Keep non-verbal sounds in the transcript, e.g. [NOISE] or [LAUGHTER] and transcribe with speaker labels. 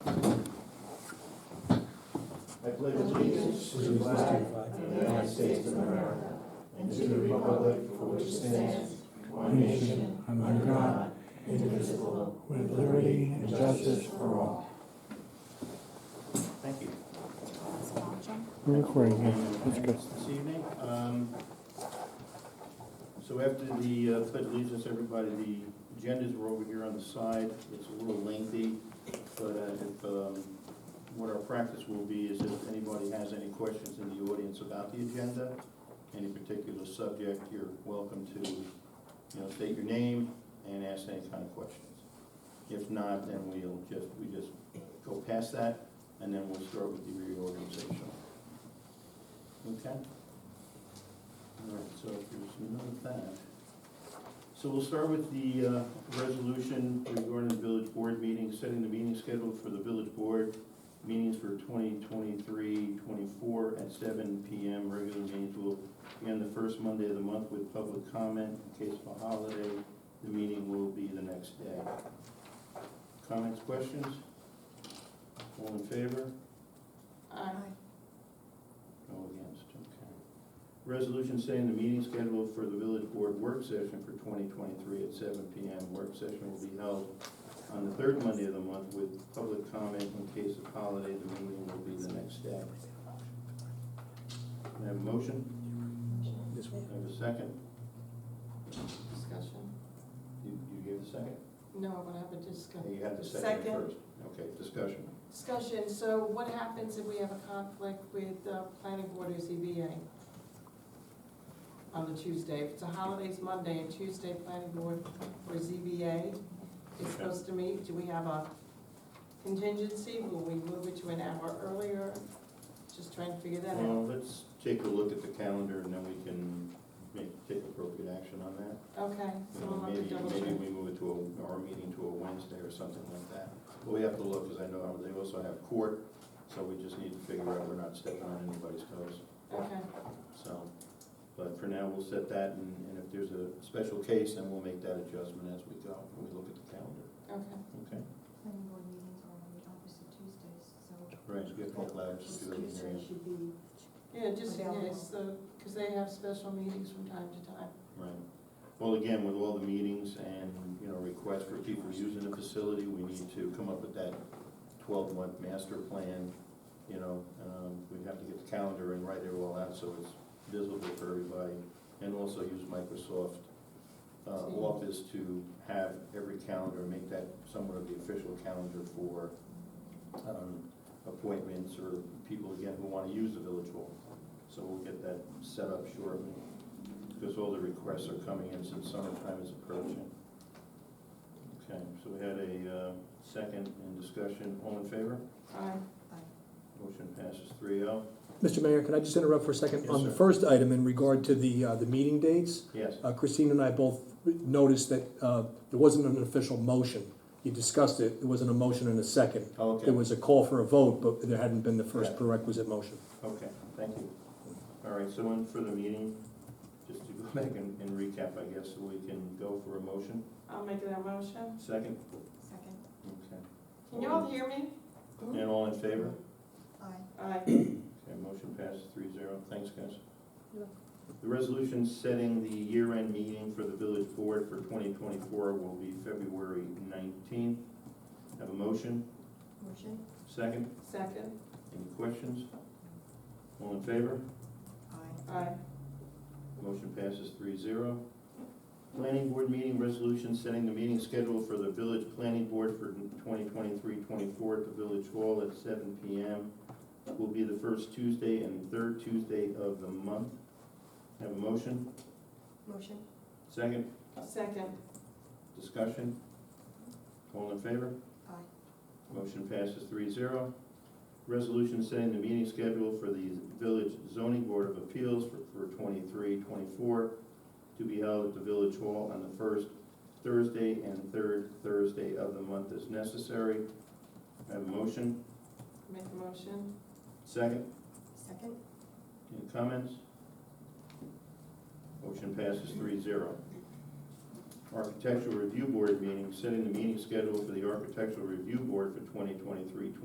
Speaker 1: under God, indivisible, with liberty and justice for all.
Speaker 2: Thank you.
Speaker 1: We're recording here. That's
Speaker 2: Thank you
Speaker 1: good.
Speaker 2: This evening, um, so after the uh, pledge of allegiance, everybody, the agendas were over here on the side. It's a little lengthy, but uh, if, um, what our practice will be is if anybody has any questions in the audience about the agenda, any particular subject, you're welcome to, you know, state your name and ask any kind of questions. If not, then we'll just, we just go past that, and then we'll start with the reorganization. Okay. All right, so if there's none of that. So we'll start with the uh, resolution regarding the village board meeting, setting the meeting schedule for the village board meetings for 2023-24 at 7 PM. Regular meetings will be on the first Monday of the month with public comment. In case of a holiday, the meeting will be the next day. Comments, questions? All in favor?
Speaker 3: Um,
Speaker 2: No against, okay. Resolution setting the meeting schedule for the village board work session for 2023 at 7 PM. Work session will be held on the third Monday of the month with public comment in case of holiday. The meeting will be the next day. Can I have a motion? Can I have a second?
Speaker 3: Discussion?
Speaker 2: You you gave the second?
Speaker 3: No, but I have a discussion.
Speaker 2: You had the second
Speaker 3: Second.
Speaker 2: first. Okay, discussion.
Speaker 3: Discussion, so what happens if we have a conflict with uh, planning board or ZBA? On the Tuesday, if it's a holidays Monday and Tuesday, planning board or ZBA is
Speaker 2: Okay.
Speaker 3: supposed to meet, do we have a contingency? Will we move it to an hour earlier? Just trying to figure that out.
Speaker 2: Well, Uh, let's take a look at the calendar and then we can make, take appropriate action on that.
Speaker 3: Okay, so
Speaker 2: You know,
Speaker 3: we'll have
Speaker 2: Mm.
Speaker 3: to
Speaker 2: Maybe,
Speaker 3: double
Speaker 2: maybe
Speaker 3: check.
Speaker 2: we move it to a, our meeting to a Wednesday or something like that. But we have to look, because I know they also have court, so we just need to figure out we're not stepping on anybody's toes,
Speaker 3: Okay,
Speaker 2: so. But for now, we'll set that, and, and if there's a special case, then we'll make that adjustment as we go, when we look at the calendar,
Speaker 3: okay.
Speaker 2: okay?
Speaker 4: planning board meetings are on the opposite Tuesdays, so.
Speaker 2: Right, so get that loud, just do it in your-
Speaker 4: should be.
Speaker 3: Yeah, just in
Speaker 4: Available.
Speaker 3: case, because they have special meetings from time to time.
Speaker 2: Right. Well, again, with all the meetings and, you know, requests for people using the facility, we need to come up with that twelve-month master plan. You know, um, we have to get the calendar and write it all out so it's visible for everybody. And also use Microsoft, uh,
Speaker 3: Teams.
Speaker 2: Office to have every calendar, make that somewhat of the official calendar for, um, appointments or people, again, who wanna use the village hall. So we'll get that set up shortly because all the requests are coming in since summertime is approaching. Okay, so we had a uh, second in discussion, all in favor?
Speaker 3: Aye.
Speaker 2: Motion passes three oh.
Speaker 5: Mr. Mayor, can I just interrupt for a second?
Speaker 2: Yes,
Speaker 5: On the
Speaker 2: sir.
Speaker 5: first item in regard to the, uh, the meeting dates,
Speaker 2: Yes,
Speaker 5: uh, Christine and I both noticed that uh, there wasn't an official motion. You discussed it, there wasn't a motion and a second.
Speaker 2: Oh, okay,
Speaker 5: There was a call for a vote, but there hadn't been the first
Speaker 2: Yeah.
Speaker 5: prerequisite motion.
Speaker 2: okay, thank you. All right, so in for the meeting, just to go [LAUGHS] back and and recap, I guess, so we can go for a motion.
Speaker 3: I'll make that motion.
Speaker 2: Second,
Speaker 4: Second,
Speaker 2: okay.
Speaker 3: Can you all hear me?
Speaker 2: And all in favor?
Speaker 4: aye.
Speaker 3: Aye.
Speaker 2: Okay, motion passes three zero. Thanks, guys.
Speaker 3: You're welcome.
Speaker 2: The resolution setting the year-end meeting for the village board for 2024 will be February 19th. Have a motion?
Speaker 4: Motion,
Speaker 2: Second?
Speaker 3: Second.
Speaker 2: Any questions? All in favor?
Speaker 4: aye.
Speaker 3: Aye.
Speaker 2: Motion passes 3-0. Planning board meeting resolution setting the meeting schedule for the village planning board for 2023-24 at the village hall at seven PM. Will be the first Tuesday and third Tuesday of the month. Have a motion?
Speaker 4: Motion,
Speaker 2: Second?
Speaker 3: Second.
Speaker 2: Discussion? All in favor?
Speaker 4: aye.
Speaker 2: Motion passes 3-0. Resolution setting the meeting schedule for the Village Zoning Board of Appeals for- for 23-24 to be held at the Village Hall on the first Thursday and third Thursday of the month as necessary. Have a motion?
Speaker 3: Make the motion.
Speaker 2: Second?
Speaker 4: Second,
Speaker 2: Any comments? Motion passes 3-0. Architectural Review Board meeting, setting the meeting schedule for the Architectural Review Board for 2023-24